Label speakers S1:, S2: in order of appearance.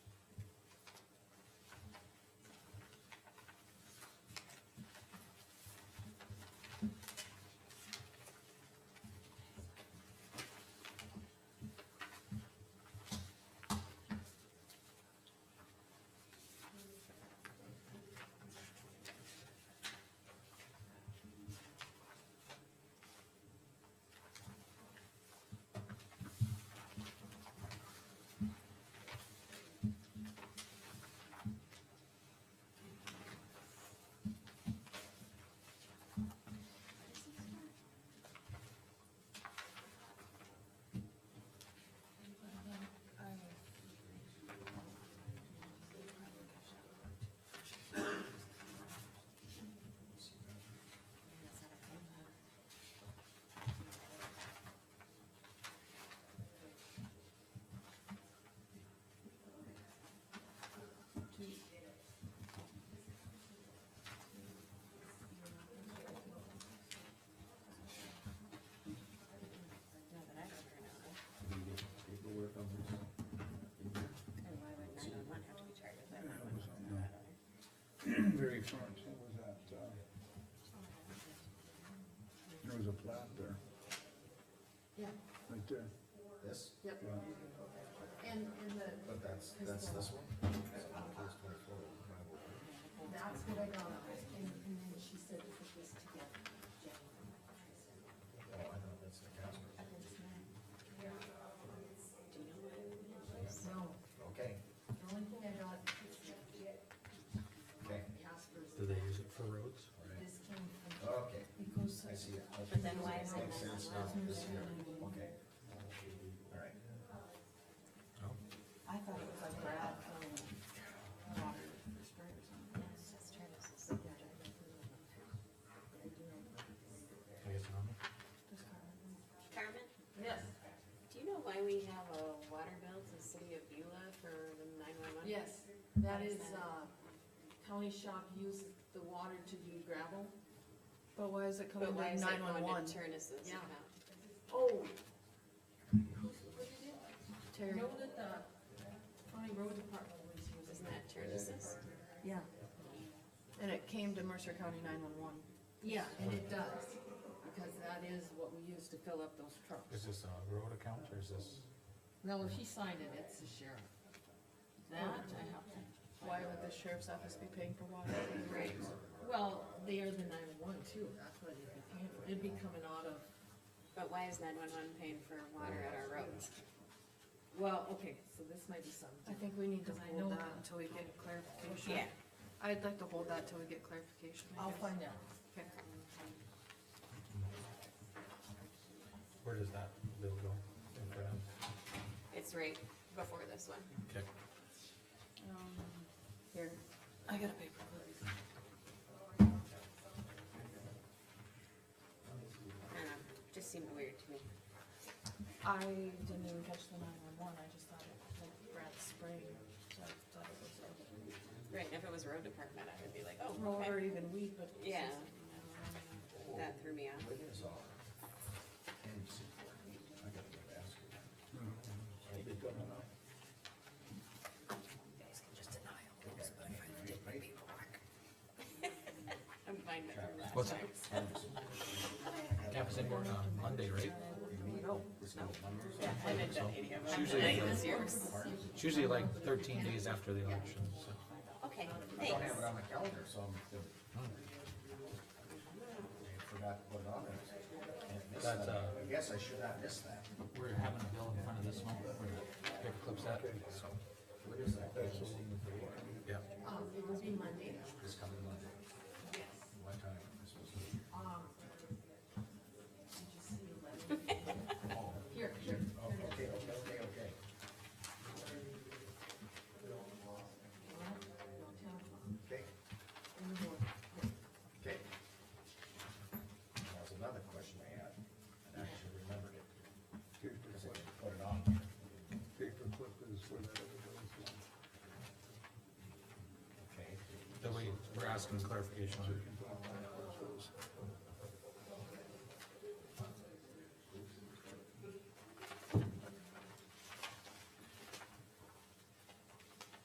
S1: very front, it was at, uh, there was a plat there,
S2: Yeah,
S1: right there.
S3: This,
S2: yep,
S1: Yeah.
S2: and, and the,
S3: but that's, that's this one?
S2: that's what I got, and, and then she said to put this together.
S3: Oh, I know, that's the Casper.
S2: No,
S3: Okay,
S2: the only thing I got is
S3: okay,
S2: Casper's,
S4: Do they use it for roads?
S2: this came from,
S3: okay,
S2: it goes,
S3: I see it.
S5: But then why is it
S3: Makes sense now, this is here, okay. All right,
S2: I thought it was like that, um, water spray or
S4: I
S2: something.
S4: guess not.
S5: Carmen,
S2: Yes,
S5: do you know why we have a water bill to the city of Beulah for the nine-one-one?
S2: yes, that is, uh, county shop used the water to do gravel.
S6: But why is it coming
S5: But why
S6: to
S5: is it
S6: nine one
S5: going
S6: one?
S5: to Turnus's
S2: Yeah.
S5: account?
S2: Oh. Who's- what did it?
S6: Terry,
S2: Know that the county road department was using
S5: Isn't
S2: that.
S5: that Turnus's?
S6: yeah. And it came to Mercer County nine one one.
S2: Yeah, and it does, because that is what we use to fill up those
S4: Is
S2: trucks.
S4: this a road account or is this?
S2: No, if he signed it, it's the sheriff. That, I have to.
S6: Why would the sheriff's office be paying for water?
S5: Right.
S2: Well, they are the nine-one too, that's why they'd be paying for it, it'd be coming out of,
S5: But why is nine-one-one paying for water at our roads?
S2: well, okay, so this might be something.
S6: I think we need to
S2: Because I know
S6: hold that
S2: that.
S6: until we get clarification. I'd like to hold that till we get clarification. I
S2: I'll
S6: guess.
S2: find out.
S6: Okay.
S4: Where does that bill go? In front of-
S5: It's right before this one.
S4: Okay.
S6: Um, Here, I got a paper.
S5: I don't know, just seemed weird to me.
S6: I didn't even catch the nine one one, I just thought it, like, Brad spraying, so I thought it was over.
S5: Right, if it was road department, I would be like, oh,
S6: Roll or
S5: okay.
S6: even weed, but. it's
S5: Yeah.
S6: just-
S5: That threw me off.
S3: what is all? I gotta go ask her. Are they coming up? You guys can just deny all this, but I find different
S5: I'm fine with it last
S4: What's
S5: time.
S4: Campus inboard on Monday, right?
S5: Yeah, I didn't do any of them. Nine this year's.
S4: It's usually like thirteen days after the election, so.
S5: Okay,
S3: I don't have
S5: thanks.
S3: it on my calendar, so I'm, I forgot to put it on there. Can't miss
S4: That's,
S3: that.
S4: uh,
S3: I guess I should not miss that.
S4: We're having a bill in front of this one, where paper clips at, so.
S3: What is that?
S4: Yeah.
S2: Um, it will be Monday,
S3: This coming Monday. What time? This was-
S2: um. Did you see eleven? Here, here,
S3: Oh, Okay, okay, okay, okay.
S2: ten o'clock
S3: Okay,
S2: in the morning.
S3: okay. That was another question I had, and I actually remembered it, because I
S1: Paperclip,
S3: didn't put it on. there.
S1: paperclip is where that other goes.
S3: Okay.
S4: So we, we're asking clarification on